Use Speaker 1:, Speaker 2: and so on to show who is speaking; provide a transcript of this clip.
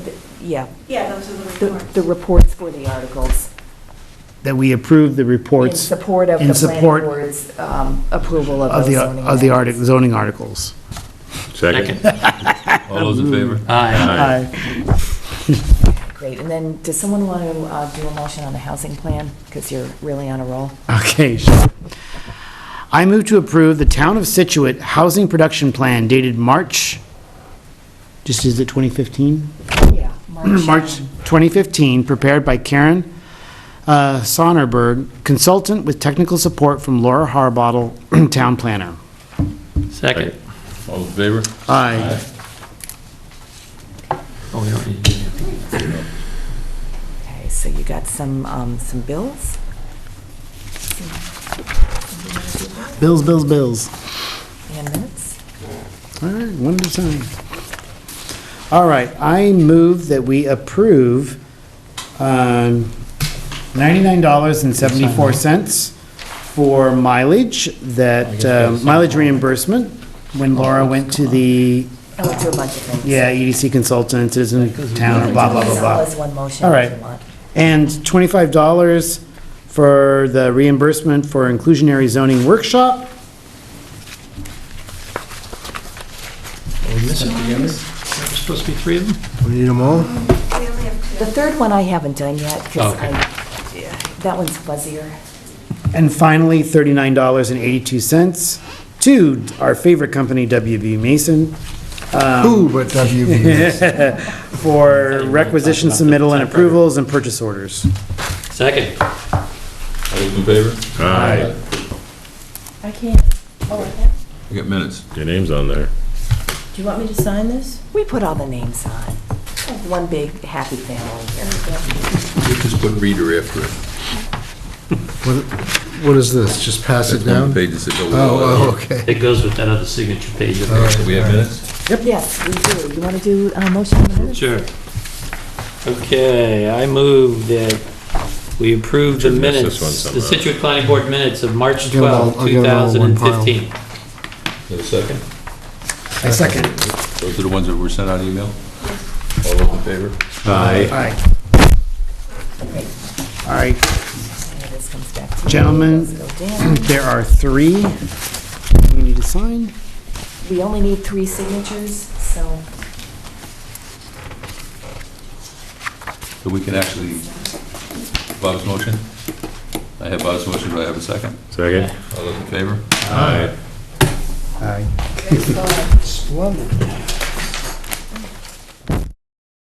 Speaker 1: yeah,
Speaker 2: Yeah, those are the
Speaker 1: the,
Speaker 2: reports.
Speaker 1: the reports for the articles.
Speaker 3: that we approve the
Speaker 1: In
Speaker 3: reports
Speaker 1: support of
Speaker 3: in
Speaker 1: the planning
Speaker 3: support
Speaker 1: board's um, approval of
Speaker 3: of
Speaker 1: those
Speaker 3: the,
Speaker 1: zoning
Speaker 3: of the artic-
Speaker 1: amendments.
Speaker 3: zoning articles.
Speaker 4: Second. All those in favor?
Speaker 5: Aye.
Speaker 3: Aye.
Speaker 1: Great, and then, does someone want to uh, do a motion on the housing plan? Because you're really on a roll.
Speaker 3: Okay, sure. I move to approve the Town of Situate Housing Production Plan dated March, just is it 2015?
Speaker 1: Yeah.
Speaker 3: March 2015, prepared by Karen uh, Sonnerberg, consultant with technical support from Laura Harbottle, town planner.
Speaker 5: Second.
Speaker 4: All those in favor?
Speaker 3: Aye.
Speaker 5: Oh, we don't need to do that.
Speaker 1: Okay, so you got some, um, some bills?
Speaker 3: Bills, bills, bills.
Speaker 1: And minutes?
Speaker 3: All right, one at a time. All right, I move that we approve um, $99.74 for mileage, that uh, mileage reimbursement, when Laura went to the,
Speaker 1: I went through Oh, a bunch of things.
Speaker 3: yeah, E EDC consultant, citizen of town, or blah, blah, blah,
Speaker 1: All
Speaker 3: blah.
Speaker 1: as one motion.
Speaker 3: All
Speaker 1: if
Speaker 3: right.
Speaker 1: you want.
Speaker 3: And $25 for the reimbursement for inclusionary zoning workshop.
Speaker 5: Are we missing any? There's supposed to be three of them?
Speaker 6: We need them all?
Speaker 2: We only have two.
Speaker 1: The third one I haven't done yet, because
Speaker 5: Okay.
Speaker 1: I, yeah, that one's fuzzier.
Speaker 3: And finally, thirty-nine dollars and eighty-two cents to our favorite company, WB Mason,
Speaker 6: Who but WB?
Speaker 3: for requisition submittal and approvals and purchase orders.
Speaker 5: Second.
Speaker 4: All those in favor?
Speaker 7: Aye.
Speaker 8: I can't, oh, I can't.
Speaker 4: We got minutes.
Speaker 7: Your name's on there.
Speaker 8: Do you want me to sign this?
Speaker 1: We put all the names on. One big happy family here.
Speaker 4: We just put reader after it.
Speaker 6: What is this? Just pass it
Speaker 4: That's one of
Speaker 6: down?
Speaker 4: the pages that go with all
Speaker 6: Oh, oh,
Speaker 4: of
Speaker 6: okay.
Speaker 5: It goes with that other signature page. up there.
Speaker 4: it. Do we have minutes?
Speaker 1: Yes, we do. You want to do a motion on the minutes?
Speaker 5: Sure. Okay, I move that we approve the
Speaker 7: Should miss this
Speaker 5: minutes,
Speaker 7: one
Speaker 5: the
Speaker 7: somehow.
Speaker 5: Situate Planning Board minutes of March
Speaker 6: Get 'em all-
Speaker 5: 12,
Speaker 6: I'll get 'em all in one pile.
Speaker 5: 2015.
Speaker 4: Is there a second?
Speaker 3: I second.
Speaker 4: Those are the ones that were sent out email? All those in favor?
Speaker 7: Aye.
Speaker 3: Aye. All right,
Speaker 1: Yeah, This comes back to you.
Speaker 3: Gentlemen.
Speaker 1: Those go down.
Speaker 3: there are three we need to sign.
Speaker 1: We only need three signatures, so.
Speaker 4: So we can actually, Bob's motion? I have Bob's motion, do I have a second?
Speaker 7: Second?
Speaker 4: All those in favor?
Speaker 7: Aye.
Speaker 3: Aye.
Speaker 6: Splendid.